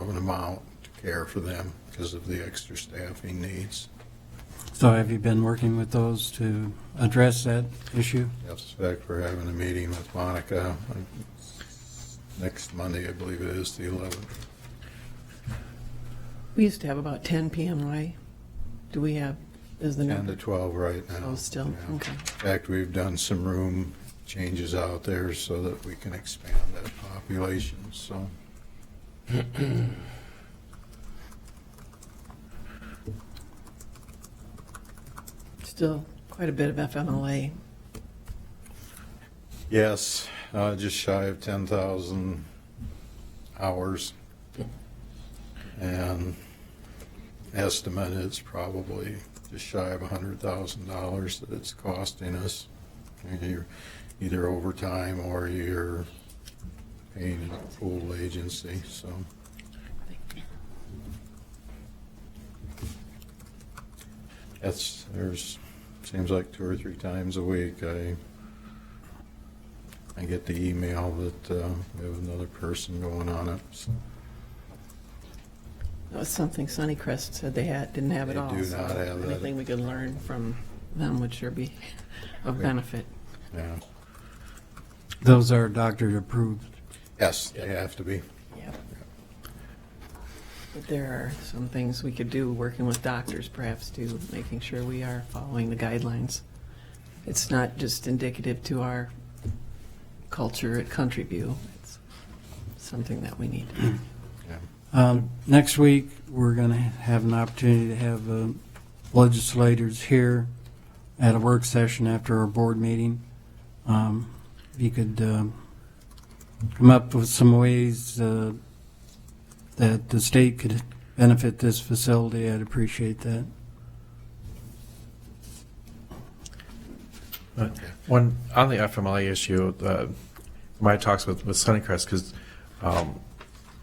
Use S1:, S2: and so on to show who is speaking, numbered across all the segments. S1: an amount to care for them because of the extra staffing needs.
S2: So have you been working with those to address that issue?
S1: Yes, in fact, we're having a meeting with Monica on next Monday, I believe it is, the 11th.
S3: We used to have about 10 PMI. Do we have, is the
S1: 10 to
S3: number?
S1: 12 right now.
S3: Oh, still,
S1: Yeah.
S3: okay.
S1: In fact, we've done some room changes out there so that we can expand that population, so.
S3: Still quite a bit of FMLA.
S1: Yes, uh, just shy of 10,000 hours. And estimate is probably just shy of $100,000 that it's costing us. You're Either overtime or you're paying a pool agency, so. That's, there's, seems like two or three times a week I I get the email that uh, we have another person going on it. so
S3: That was something Sunnycrest said they had, didn't have at
S1: They
S3: all.
S1: do
S3: so
S1: not have that.
S3: Anything we could learn from them would sure be of
S1: Okay.
S3: benefit.
S1: yeah.
S2: Those are doctor approved.
S1: Yes, they have to be.
S3: Yep. But there are some things we could do, working with doctors perhaps, too, making sure we are following the guidelines. It's not just indicative to our culture at Country View. It's something that we need.
S1: Yeah.
S2: Um, Next week, we're going to have an opportunity to have uh, legislators here at a work session after our board meeting. Um, If you could um, come up with some ways uh, that the state could benefit this facility, I'd appreciate that.
S4: One, on the FMLA issue, uh, my talks with, with Sunnycrest, because um,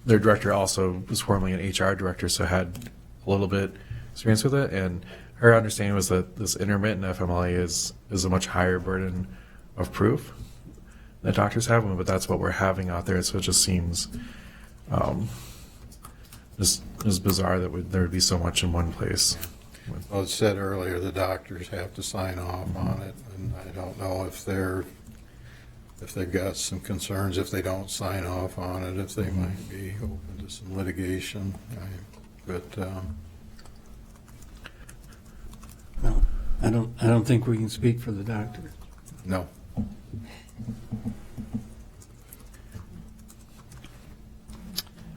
S4: their director also was formerly an HR director, so had a little bit experience with it, and her understanding was that this intermittent FMLA is, is a much higher burden of proof that doctors have, but that's what we're having out there, so it just seems um, just, just bizarre that we- there would be so much in one place.
S1: Well, it said earlier, the doctors have to sign off on it, and I don't know if they're, if they've got some concerns, if they don't sign off on it, if they might be open to some litigation. I- But, um,
S2: I don't, I don't think we can speak for the doctor.
S1: no.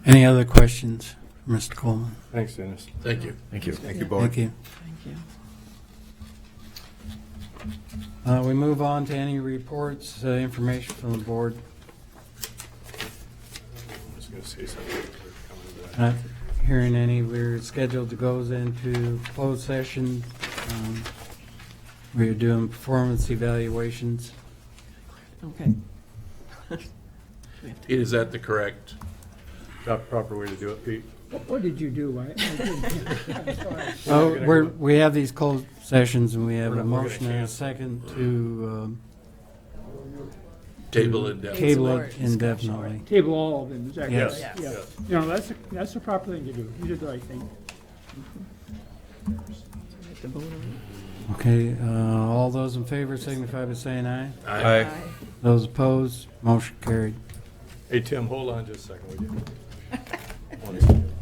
S2: Any other questions, for Mr. Coleman?
S4: Thanks, Dennis.
S5: Thank you.
S4: Thank you.
S1: Thank you,
S2: Thank
S1: board.
S2: you.
S3: Thank you.
S2: Uh, We move on to any reports, uh, information from the board. Not hearing any, we're scheduled to go into closed session. Um, We're doing performance evaluations.
S3: Okay.
S5: Pete, is that the correct, not proper way to do it, Pete?
S6: What did you do? I, I didn't- I'm sorry.
S2: Oh, we're, we have these closed sessions and we have
S5: We're
S2: a
S5: not- we're gonna
S2: motion and a
S5: cancel.
S2: second to
S5: Table and
S2: um,
S5: depth.
S2: table
S3: more
S2: it
S3: discussion.
S2: indefinitely.
S6: Table all of them, is that correct?
S2: Yes.
S3: Yes.
S6: Yeah. You know, that's, that's the proper thing to do. You did the right thing.
S3: Hit the vote on
S2: Okay, uh, all those in favor signify by saying aye.
S5: Aye.
S3: it. Aye.
S2: Those opposed, motion carried.
S5: Hey, Tim, hold on just a second, would you? One second.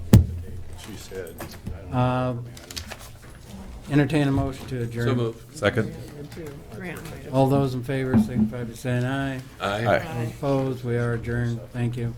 S5: She said, I don't know.
S2: Uh, Entertain a motion to
S5: So
S2: adjourn.
S5: move.
S4: Second?
S3: Graham, right up.
S2: All those in favor signify by saying aye.
S5: Aye.
S2: Opposed, we are adjourned. Thank you.